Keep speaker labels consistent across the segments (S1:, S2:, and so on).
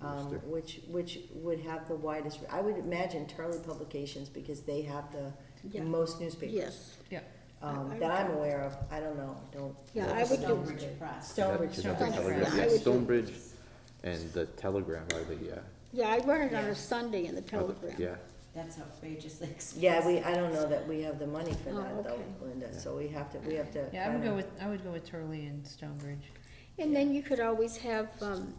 S1: um,
S2: Interesting.
S1: which, which would have the widest, I would imagine Turley Publications, because they have the
S3: Yeah.
S1: most newspapers,
S3: Yes,
S4: Yeah.
S1: um,
S3: I- I
S1: that I'm
S3: would-
S1: aware of, I don't know, don't.
S3: yeah, I would do,
S5: Stonebridge Press.
S1: Stonebridge,
S2: Is that the
S1: Stonebridge
S2: Telegram?
S1: Press.
S3: Yeah, I
S2: Yeah,
S3: would do-
S2: Stonebridge and the Telegram are the, uh,
S3: yeah, I run it on
S5: Yeah.
S3: a Sunday in the
S2: are the-
S3: Telegram.
S2: yeah.
S5: That's outrageously expensive.
S1: Yeah, we, I don't know that we have the money for
S3: Oh,
S1: that though,
S3: okay.
S1: Linda, so we have to, we have to.
S4: Yeah, I would
S1: kinda-
S4: go with, I would go with Turley and Stonebridge.
S3: And then you could always have, um,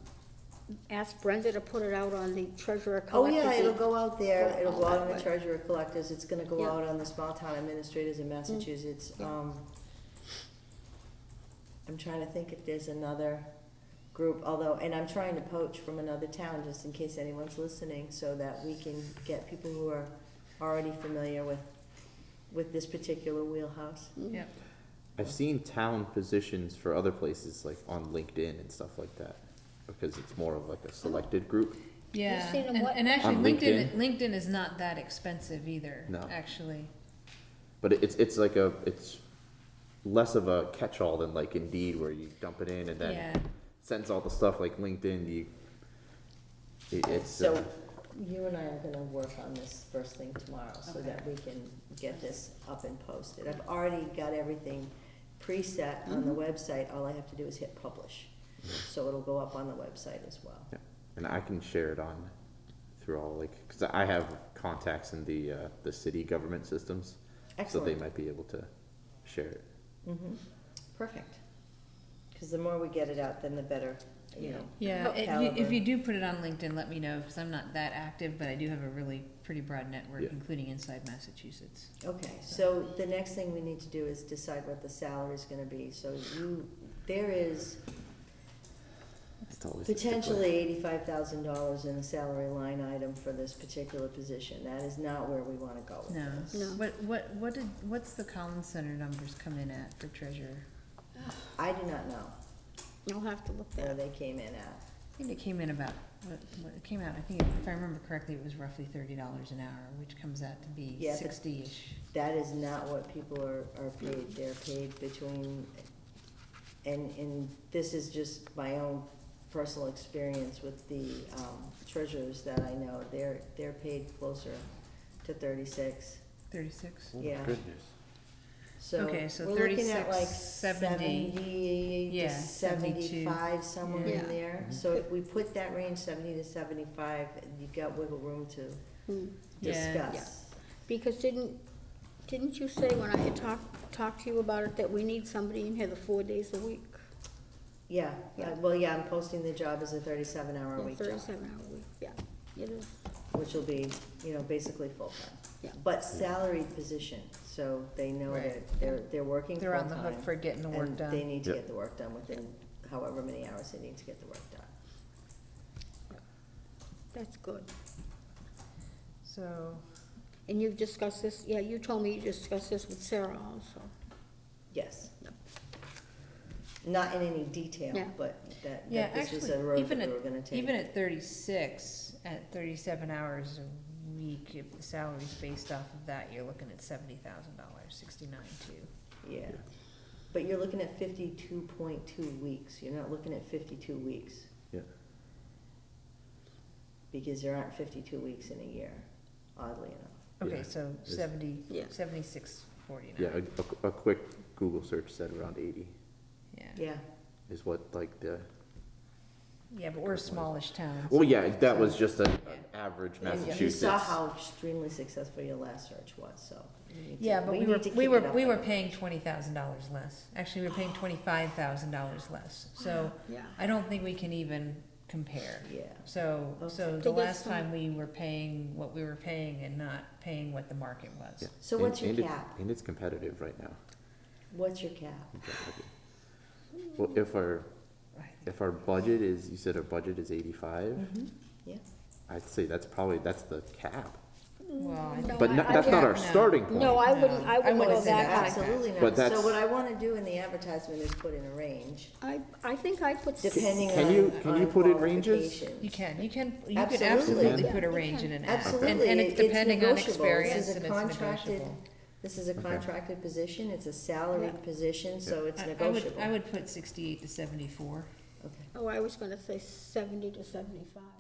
S3: ask Brenda to put it out on the treasurer
S1: Oh,
S3: collector's.
S1: yeah, it'll
S3: e-
S1: go out there,
S3: Go
S1: it'll go
S3: all
S1: out
S3: that
S1: on the
S3: way.
S1: treasurer collectors, it's gonna go
S3: Yeah. Mm.
S1: out on the small town administrators in Massachusetts,
S3: Yeah.
S1: um. I'm trying to think if there's another group, although, and I'm trying to poach from another town, just in case anyone's listening, so that we can get people who are already familiar with, with this particular wheelhouse.
S3: Mm.
S4: Yeah.
S2: I've seen town positions for other places, like on LinkedIn and stuff like that, because it's more of like a selected group.
S4: Yeah,
S3: seen 'em
S4: and,
S3: what-
S4: and actually
S2: On
S4: LinkedIn, LinkedIn is not that expensive either,
S2: No.
S4: actually.
S2: But it- it's, it's like a, it's less of a catch-all than like Indeed, where you dump it in and
S4: Yeah,
S2: then sends all the stuff like LinkedIn, you, it- it's,
S1: So,
S2: uh,
S1: you and I are gonna work on this first thing tomorrow, so
S5: Okay.
S1: that we can get this up and posted. I've already got everything preset on the website, all I have to do is hit publish. So it'll go up on the website as well.
S2: yeah. and I can share it on through all like, because I have contacts in the, uh, the city government systems. So they
S1: Excellent.
S2: might be able to share it.
S1: Mm-hmm, perfect. Cause the more we get it out, then the better, you know.
S4: yeah,
S1: Okay.
S4: if you, if you
S1: Caliber.
S4: do put it on LinkedIn, let me know, cause I'm not that active, but I do have a really pretty broad network,
S2: Yeah.
S4: including inside Massachusetts.
S1: Okay, so the next thing we need to do is decide what the salary's gonna be, so you, there is
S2: It's always a stickler.
S1: Potentially eighty-five thousand dollars in the salary line item for this particular position, that is not where we wanna go with
S4: No,
S1: this.
S3: No.
S4: what, what, what did, what's the Collins Center numbers come in at for treasurer?
S1: I do not know
S3: I'll have to look
S1: where
S3: that up.
S1: they came in at,
S4: I think it came in about, what, what it came out, I think, if I remember correctly, it was roughly thirty dollars an hour, which comes out to be
S1: Yeah, but-
S4: sixty-ish.
S1: that is not what people are, are paid, they're paid between, and, and this is just my own personal experience with the, um, treasurers that I know, they're, they're paid closer to thirty-six,
S4: Thirty-six?
S2: Oh my
S1: yeah.
S2: Goodness.
S1: So
S4: Okay, so
S1: we're looking at
S4: 36,
S1: like
S4: 70,
S1: seventy to
S4: yeah, 72.
S1: seventy-five, somewhere
S3: Yeah. Mhm.
S1: in there. So if we put that range, seventy to seventy-five, you've got wiggle room to
S3: Mm.
S4: Yeah.
S1: discuss.
S3: Because didn't, didn't you say when I had talked, talked to you about it, that we need somebody in here the four days a week?
S1: Yeah,
S3: Yeah.
S1: uh, well, yeah, I'm posting the job as a thirty-seven hour a
S3: Yeah,
S1: week job,
S3: Thirty-seven hour week, yeah, it is,
S1: which will be, you know, basically full-time.
S3: Yeah.
S1: But salaried position, so they know
S4: Right.
S1: that they're, they're working
S4: They're on the
S1: full-time,
S4: hook for getting the work
S1: And they
S4: done.
S1: need to
S2: Yep.
S1: get the work done within however many hours they need to get the work done.
S3: that's good.
S4: So,
S3: And you've discussed this, yeah, you told me you discussed this with Sarah also.
S1: Yes.
S3: Yep.
S1: Not in any detail,
S3: Yeah.
S1: but that,
S4: yeah,
S1: that this was a
S4: actually,
S1: road that
S4: even
S1: we
S4: at,
S1: were gonna take.
S4: even at thirty-six, at thirty-seven hours a week, if the salary's based off of that, you're looking at seventy thousand dollars, sixty-nine two.
S1: Yeah, but you're looking at fifty-two point two weeks, you're not looking at fifty-two weeks,
S2: Yeah.
S1: because there aren't fifty-two weeks in a year, oddly enough.
S4: Okay,
S2: Yeah.
S4: so
S2: It's-
S4: seventy,
S3: Yeah.
S4: seventy-six forty-nine.
S2: Yeah, a- a, qu- a quick Google search said around eighty
S4: Yeah,
S1: Yeah,
S2: is what like the,
S4: yeah, but we're a smallish town.
S2: well,
S4: so-
S2: yeah, that was
S4: so-
S2: just a- an
S4: Yeah.
S2: average
S1: and you
S2: Massachusetts.
S1: saw how extremely successful your last search was, so. we need to-
S4: Yeah, but we
S1: need
S4: were,
S1: to
S4: we
S1: keep it
S4: were,
S1: up
S4: we were
S1: there.
S4: paying twenty thousand dollars less. Actually, we were paying twenty-five thousand dollars less, so
S3: Yeah.
S4: I don't think we can even compare.
S1: Yeah.
S4: So, so
S1: Okay.
S4: the
S3: So
S4: last
S3: that's
S4: time we were paying what we were paying and not paying what the market
S2: Yeah.
S4: was.
S1: So
S2: And-
S1: what's your
S2: and it-
S1: cap?
S2: And it's competitive right now.
S1: What's your cap?
S2: in John Wickie. Well, if our, if our budget is, you said our budget is eighty-five,
S1: Mm-hmm. Yeah,
S2: I'd say that's probably, that's the cap.
S1: Mm,
S4: Well, I-
S1: Oh,
S3: No,
S2: But
S3: I-
S2: not,
S3: I
S2: that's not
S3: get-
S2: our
S4: no.
S2: starting point.
S3: No, I
S4: No,
S3: wouldn't,
S4: I
S3: I wouldn't
S4: wouldn't
S3: go
S4: say
S3: that
S4: that.
S3: high.
S1: absolutely
S2: But
S1: not. So
S2: that's-
S1: what I wanna do in the advertisement is put in a range,
S3: I, I think I put.
S1: depending on,
S2: Can you- can you
S1: on
S2: put in ranges?
S1: qualifications.
S4: you can, you can, you can
S1: Absolutely.
S4: absolutely
S2: Yeah.
S4: put a
S3: You
S4: range in
S3: can.
S4: an ad. And,
S1: Absolutely.
S4: and
S1: it-
S4: it's depending on
S1: negotiable.
S4: experience
S1: This is
S4: and
S1: a
S4: it's
S1: contracted-
S4: negotiable.
S1: This is a
S2: Okay.
S1: contracted position, it's a salaried
S3: Yeah.
S1: position, so it's
S4: I, I would,
S1: negotiable.
S4: I would put sixty-eight to seventy-four.
S1: Okay.
S3: Oh, I was gonna say seventy to seventy-five.